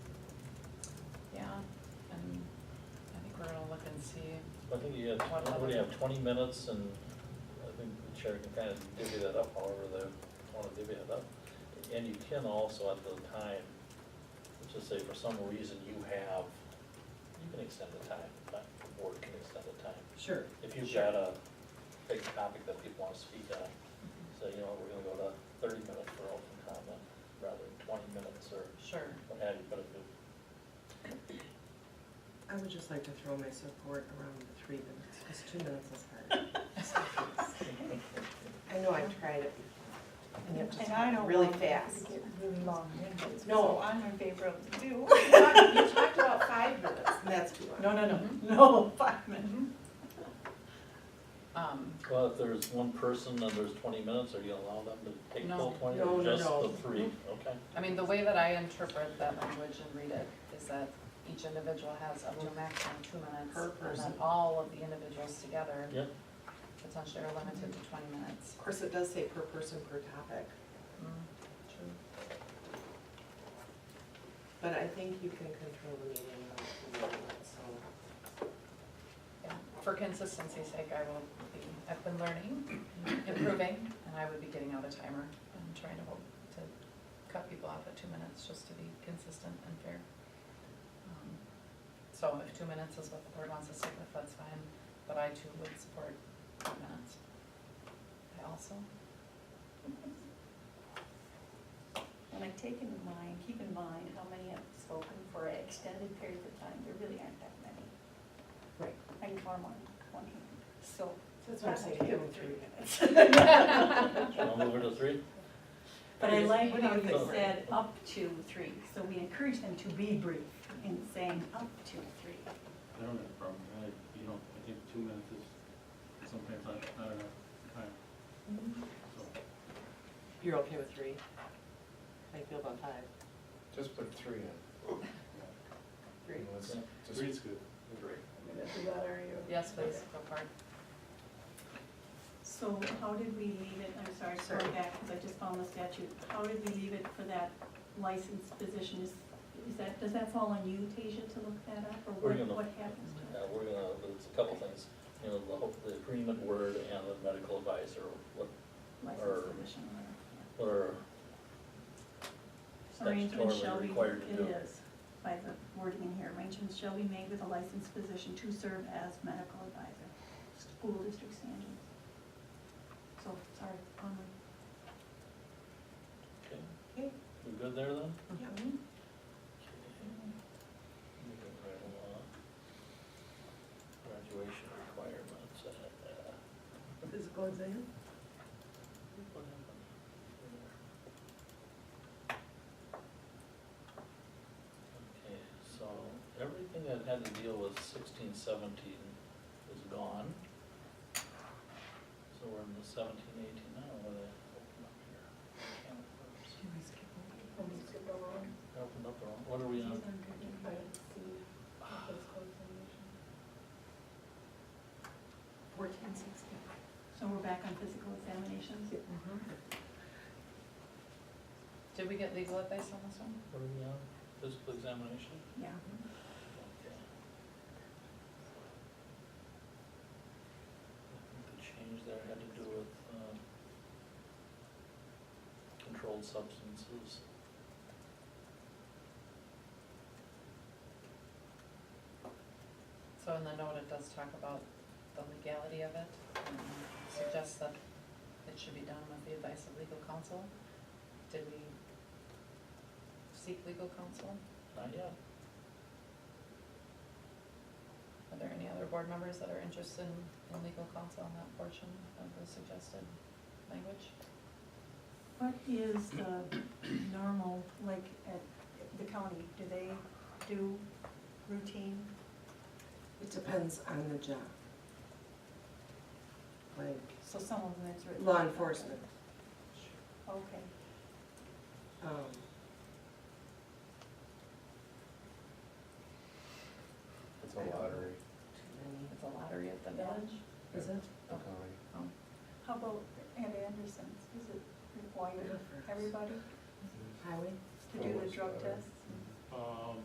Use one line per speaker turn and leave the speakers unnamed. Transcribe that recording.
and see.
I think you have,
One
what do you
other.
have, twenty minutes, and I think the chair can kind of divvy that up however they want to divvy it up. And you can also at the time, let's just say for some reason you have, you can extend the time, but the board can extend the time.
Sure.
If you've
sure.
got a big topic that people want to speak on, say, you know, we're gonna go to thirty minutes for open comment, rather than twenty minutes or
Sure.
what have you, but if you
I would just like to throw my support around the three minutes, because two minutes is hard. I know I tried it before, and it
And I
just
don't
really
want
fast.
Get really long winded,
No.
so I'm in favor of two.
You talked- you talked about five minutes, and that's too long.
No, no, no, no, five minutes.
Um,
Well, if there's one person and there's twenty minutes, are you allow them to take
No.
full twenty
No,
or
no,
just
no. Mm-hmm.
the three? Okay.
I mean, the way that I interpret that language and read it is that each individual has up to a maximum two minutes.
Per
And
person.
then all of the individuals together
Yep,
potentially are limited to twenty minutes.
Of course, it does say per person, per topic,
Mm-hmm.
but I think you can control the meeting about two minutes, so.
Yeah. For consistency's sake, I will be, I've been learning, improving, and I would be getting out a timer and trying to hold, to cut people off at two minutes, just to be consistent and fair. Um, So if two minutes is what the board wants to stick with, that's fine, but I too would support two minutes. I also,
And I take in mind, keep in mind how many have spoken for an extended period of time, there really aren't that many.
Right.
I can count them on one hand, so.
That's what I'm saying, give them three minutes.
shall I move it to three?
But I like
What do
how
you
you
think?
said up to three, so we encourage them to be brief in saying up to three.
I don't have a problem, I, you know, I think two minutes is sometimes I, I don't know, time, so.
You're okay with three? I feel about five.
Just put three in.
Three.
Let's
Okay.
just-
Three's good.
Three.
yes, please, go for it.
So how did we leave it, I'm sorry,
Sorry.
going back, because I just found the statute, how did we leave it for that licensed position? Is, is that, does that fall on you, Tasia, to look that up, or
We're
what,
gonna-
what happens to
Yeah,
it?
we're gonna, there's a couple things, you know, the whole, the agreement word and the medical advisor, what,
Licensed
or-
position,
what are
or- arrangements shall
statutorily
be,
required to do.
it is, by the wording in here, arrangements shall be made with a licensed physician to serve as medical advisor, school district standards. So, sorry, onward.
Okay,
Okay.
we good there then?
Yeah.
Mm-hmm.
Moving right along. Graduation requirements, uh, uh,
Physical exam?
what happened? Okay, so everything that had to deal with sixteen, seventeen is gone. So we're in the seventeen, eighteen now, where they open up here. Can of worms. They Opened up their own, what are we on?
Fourteen sixty.
So we're back on physical examinations?
Did we get legal advice on this one?
What are we on? Physical examination?
Yeah.
Okay. I think the change there had to do with, um, controlled substances.
So in the note, it does talk about the legality of it, and suggests that it should be done with the advice of legal counsel. Did we seek legal counsel?
Not yet.
Are there any other board members that are interested in, in legal counsel on that portion of the suggested language?
What is the normal, like, at the county, do they do routine?
It depends on the job. Like
So some of them it's written.
law enforcement,
Okay,
um.
It's a lottery,
too
It's a lottery at the village?
many. Is it?
the county.
how about at Anderson's, is it required of everybody
Highway?
to do the drug tests?
Um,